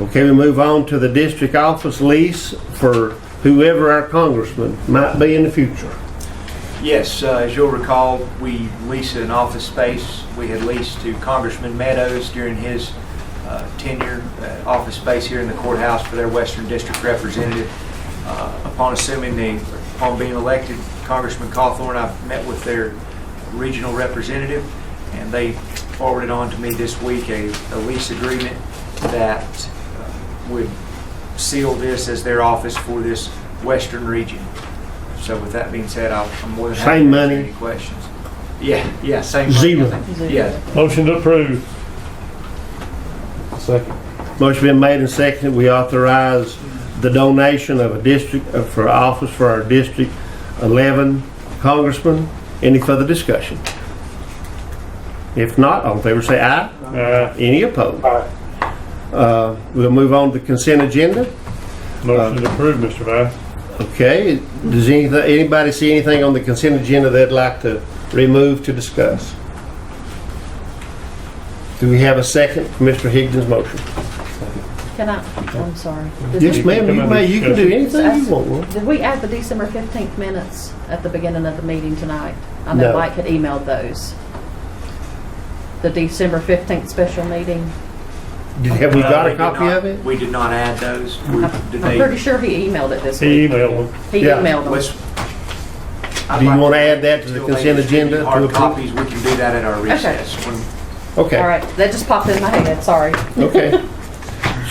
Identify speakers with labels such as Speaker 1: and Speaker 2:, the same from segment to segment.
Speaker 1: Okay, we move on to the district office lease for whoever our congressman might be in the future.
Speaker 2: Yes, uh, as you'll recall, we leased an office space. We had leased to Congressman Meadows during his uh, tenure, uh, office space here in the courthouse for their Western District representative. Uh, Upon assuming the, upon being elected, Congressman Cawthorn, I met with their regional representative, and they forwarded on to me this week a a lease agreement that uh, would seal this as their office for this western region. So with that being said, I'll- I'm more than happy
Speaker 1: Same
Speaker 2: to answer
Speaker 1: money.
Speaker 2: any questions. Yeah, yeah, same money. I
Speaker 1: Zero.
Speaker 2: think. Yeah,
Speaker 3: Motion to approve. Second.
Speaker 1: Motion been made and seconded, we authorize the donation of a district, uh, for office for our District 11 congressman. Any further discussion? If not, all in favor say aye.
Speaker 3: Aye.
Speaker 1: Any opposed? Uh, We'll move on to consent agenda.
Speaker 3: Motion to approve, Mr. Vice.
Speaker 1: Okay, does anything, anybody see anything on the consent agenda they'd like to remove to discuss? Do we have a second for Mr. Higdon's motion?
Speaker 4: Can I, I'm sorry. Did
Speaker 1: Yes,
Speaker 4: we-
Speaker 1: ma'am, you may, you can do anything you want. ma'am.
Speaker 4: Did we add the December 15th minutes at the beginning of the meeting tonight? I know
Speaker 1: No.
Speaker 4: Mike had emailed those. The December 15th special meeting.
Speaker 1: Did- Have we
Speaker 2: No,
Speaker 1: got a
Speaker 2: Uh, did
Speaker 1: copy
Speaker 2: not-
Speaker 1: of it?
Speaker 2: We did not add those. We- Did
Speaker 4: I'm pretty
Speaker 2: they?
Speaker 4: sure he emailed it this
Speaker 3: He
Speaker 4: week.
Speaker 3: emailed them.
Speaker 4: He
Speaker 1: Yeah.
Speaker 4: emailed them.
Speaker 2: let's- I'd
Speaker 1: Do you
Speaker 2: like
Speaker 1: wanna add that to the
Speaker 2: until they
Speaker 1: consent
Speaker 2: distribute
Speaker 1: agenda to
Speaker 2: Hard
Speaker 1: approve?
Speaker 2: copies, we can do that at our recess. when-
Speaker 1: Okay.
Speaker 4: All right, that just popped in my head, sorry.
Speaker 1: Okay.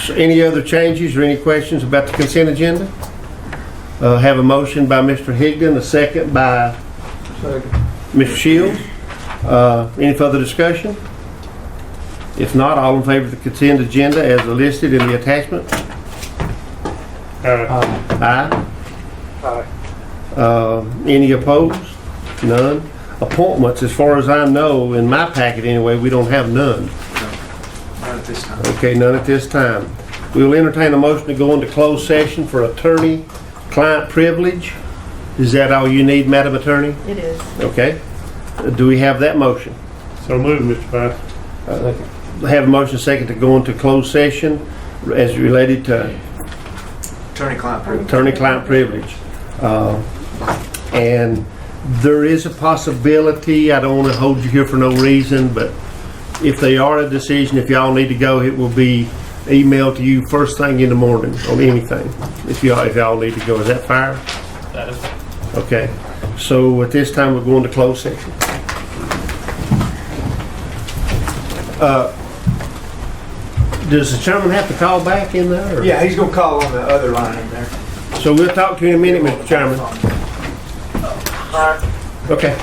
Speaker 1: So Any other changes or any questions about the consent agenda? Uh, Have a motion by Mr. Higdon, a second by Mr. Shields. Uh, Any further discussion? If not, all in favor of the consent agenda as listed in the attachment?
Speaker 3: Aye.
Speaker 1: Aye. Uh, Any opposed? None. Appointments, as far as I know, in my packet anyway, we don't have none.
Speaker 2: Not at this time.
Speaker 1: Okay, none at this time. We will entertain a motion to go into closed session for attorney-client privilege. Is that all you need, Madam Attorney?
Speaker 4: It is.
Speaker 1: Okay. Do we have that motion?
Speaker 3: So moved, Mr. Vice.
Speaker 1: Have a motion second to go into closed session as related to
Speaker 2: Attorney-client privilege.
Speaker 1: attorney-client privilege. Uh, And there is a possibility, I don't want to hold you here for no reason, but if they are a decision, if y'all need to go, it will be emailed to you first thing in the morning on anything, if y'all, if y'all need to go. Is that fair?
Speaker 5: That is
Speaker 1: Okay. So at this time, we're going to close session. Uh, Does the chairman have to call back in there? or-
Speaker 2: Yeah, he's gonna call on the other line in there.
Speaker 1: So we'll talk to you in a minute, Mr. Chairman. Okay.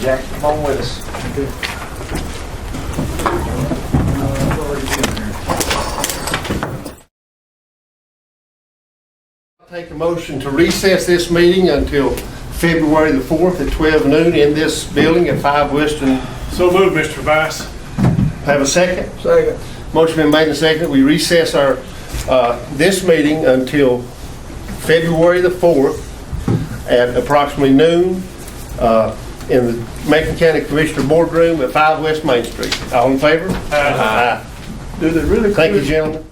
Speaker 2: Jack, come on with us.
Speaker 1: Take a motion to recess this meeting until February the 4th at 12 noon in this building at 5 Western.
Speaker 3: So moved, Mr. Vice.
Speaker 1: Have a second?
Speaker 2: Second.
Speaker 1: Motion been made and seconded. We recess our, uh, this meeting until February the 4th at approximately noon uh, in the Macon County Commissioner Boardroom at 5 West Main Street. All in favor? Aye. Do they really? Thank you, gentlemen.